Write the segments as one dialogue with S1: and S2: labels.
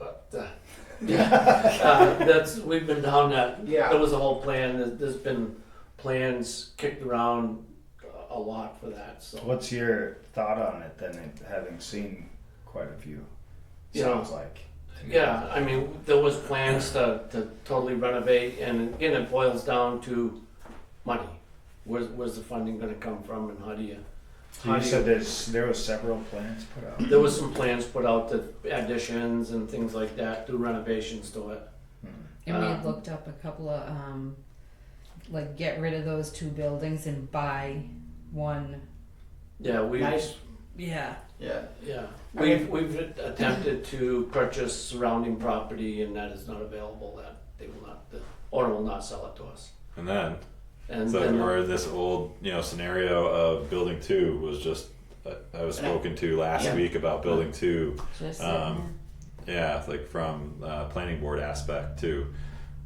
S1: Uh, that's, we've been down that,
S2: Yeah.
S1: there was a whole plan, There- there's been plans kicked around a lot for that, so.
S3: What's your thought on it then, it- having seen quite a few?
S1: Yeah.
S3: Sounds like.
S1: Yeah, I mean, there was plans to, to totally renovate, and again, it boils down to money. Where's, where's the funding gonna come from and how do you?
S3: So
S1: how
S3: you
S1: do
S3: said there's, there was several plans put out.
S1: There was some plans put out to additions and things like that, do renovations to it.
S4: And we
S1: Um,
S4: had looked up a couple of, um, like get rid of those two buildings and buy one.
S1: Yeah, we,
S2: Nice.
S4: Yeah.
S2: Yeah.
S1: yeah,
S2: Okay.
S1: we've, we've attempted to purchase surrounding property and that is not available, that they will not, the owner will not sell it to us.
S5: And then,
S1: And
S5: so
S1: then,
S5: we're in this old, you know, scenario of building two was just, uh, I was spoken to last
S2: Yeah.
S5: week about building two.
S4: Just
S5: Um, yeah, it's like from uh, planning board aspect too,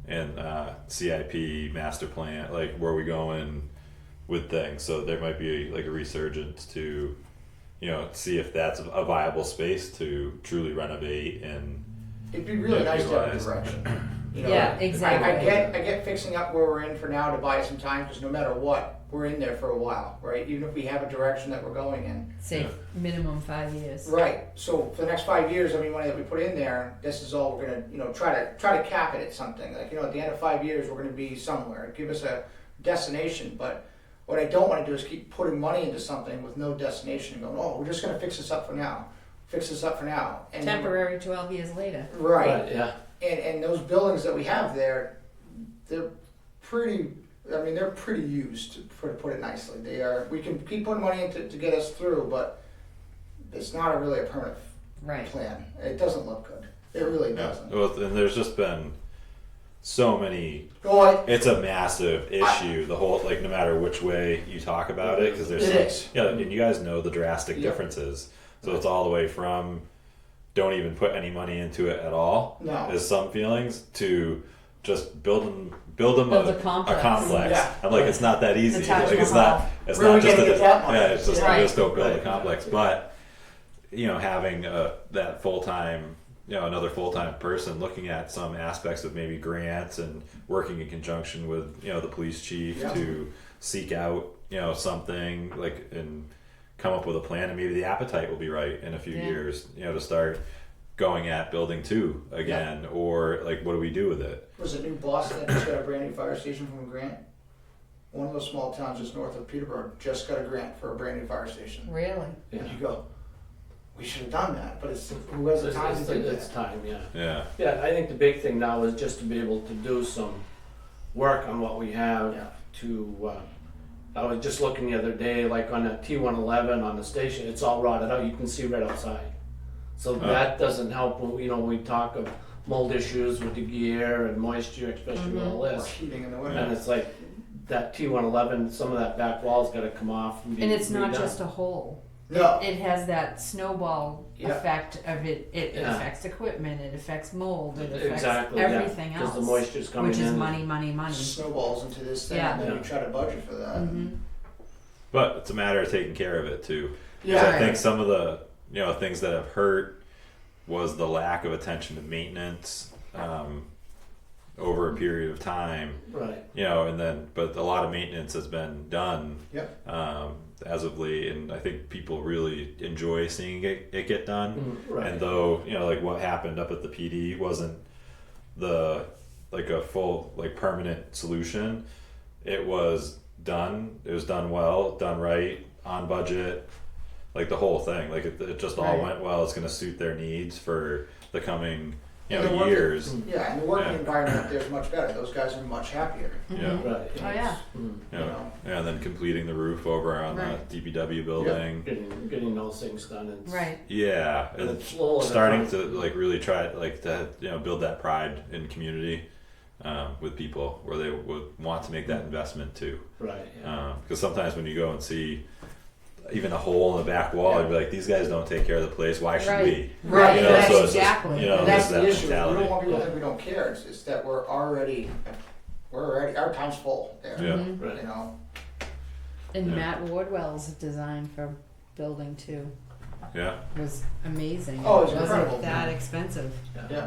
S5: and uh, CIP master plan, like where we going with things. So there might be like a resurgence to, you know, see if that's a viable space to truly renovate and
S2: It'd be really
S5: Yeah,
S2: nice to have a
S5: utilize.
S2: direction. You know,
S4: Yeah, exactly.
S2: I, I get I get fixing up where we're in for now to buy some time because no matter what, we're in there for a while, right? Even if we have a direction that we're going in.
S4: say
S5: yeah.
S4: minimum five years.
S2: Right. So for the next five years, every money that we put in there, this is all we're gonna, you know, try to try to cap it at something. Like you know, at the end of five years, we're gonna be somewhere. Give us a destination. But what I don't want to do is keep putting money into something with no destination and going, oh, we're just gonna fix this up for now, fix this up for now. And
S4: Temporary twelve years later.
S2: Right.
S1: but, yeah,
S2: And and those buildings that we have there, they're pretty. I mean, they're pretty used to put, to put it nicely. They are. We can keep putting money into to get us through, but it's not a really a permanent
S4: Right.
S2: plan. It doesn't look good. It really
S5: yeah.
S2: doesn't.
S5: Well, and there's just been so many
S2: Go on.
S5: It's a massive issue. The whole like, no matter which way you talk about it, because there's
S2: It
S5: some-
S2: is.
S5: yeah, and you guys know the drastic
S2: Yeah.
S5: differences. So it's all the way from don't even put any money into it at all.
S2: No.
S5: is some feelings to just building build them
S4: Build
S5: a,
S4: a complex.
S5: complex.
S2: Yeah.
S5: I'm like, it's not that easy.
S4: The Taj
S5: Like, it's
S4: Mahal.
S5: not. It's
S2: Where are
S5: not
S2: we
S5: just
S2: gonna
S5: a,
S2: get that money?
S5: yeah. It's just
S4: Right.
S5: you just don't build
S2: Right.
S5: a complex, but you know, having a that full time, you know, another full time person looking at some aspects of maybe grants and working in conjunction with you know the police chief
S2: Yeah.
S5: to seek out you know something like and come up with a plan and maybe the appetite will be right in a few
S4: Yeah.
S5: years you know to start going at building two again or like what do we do with it
S2: Was it New Boston that just got a brand new fire station from a grant? One of those small towns just north of Peterborough just got a grant for a brand new fire station.
S4: Really?
S1: yeah.
S2: You go. We should have done that, but it's who has the
S1: It's-
S2: time
S1: it's-
S2: to do
S1: It's
S2: this?
S1: time, yeah.
S5: yeah
S1: Yeah, I think the big thing now is just to be able to do some work on what we
S2: Yeah.
S1: have to, uh, I was just looking the other day, like on a T one eleven on the station, it's all rotted out, you can see right outside. So
S5: Oh.
S1: that doesn't help, when, you know, we talk of mold issues with the gear and moisture, especially with all
S2: Or
S1: this.
S2: heating in the winter.
S1: And it's like, that T one eleven, some of that back wall's gotta come off and be
S4: And it's not
S1: redone.
S4: just a hole.
S2: No.
S4: It has that snowball
S2: Yeah.
S4: effect of it. It
S1: Yeah.
S4: affects equipment. It affects mold. It affects
S1: Exactly, yeah,
S4: everything else,
S1: Cause the moisture's coming in.
S4: which is money, money, money.
S2: snowballs into this thing, and
S4: Yeah.
S2: then
S1: Yeah.
S2: we try to budget for that.
S4: Mhm.
S5: but it's a matter of taking care of it too Because
S2: Yeah,
S5: I think some of the you know things that have hurt was the lack of attention to maintenance um, over a period of time.
S1: Right,
S5: You know, and then but a lot of maintenance has been done
S2: Yep.
S5: um, as of late, and I think people really enjoy seeing it, it get done.
S1: Mm, right.
S5: And though you know, like what happened up at the PD wasn't the like a full like permanent solution. It was done. It was done well, done right, on budget, like the whole thing. Like it, it just all
S2: Right.
S5: went well. It's going to suit their needs for the coming you
S2: And the
S5: know
S2: work-
S5: years.
S2: yeah, and the working
S5: Yeah.
S2: environment up there is much better. Those guys are much happier.
S5: Yeah.
S1: right.
S4: Oh yeah.
S1: Mm.
S5: You
S2: You
S5: know,
S2: know.
S5: yeah, and then completing the roof over on
S4: Right.
S5: the DPW building.
S1: Getting, getting those things done and.
S4: Right.
S5: Yeah,
S1: And
S5: and
S1: it's slow and
S5: starting
S1: it's
S5: to like really try like to you know build that pride in community um, with people where they would want to make that investment too.
S1: Right, yeah.
S5: Because sometimes when you go and see even a hole in the back wall, you'd be like, these guys don't take care of the place. Why should
S4: Right.
S5: we?
S2: Right,
S5: You know,
S4: That's
S5: so it's just,
S4: exactly.
S5: you know,
S2: And
S5: there's
S2: that's the
S5: that
S2: issue. We
S5: mentality.
S2: don't want people to think we don't care. It's, it's that we're already, we're already, our time's full there.
S5: Yeah.
S4: Mm-hmm.
S1: Right.
S2: You know,
S4: And
S5: Yeah.
S4: Matt Wardwell's design for building two
S5: Yeah.
S4: was amazing.
S2: Oh, it was
S4: wasn't
S2: incredible.
S4: that expensive.
S2: yeah.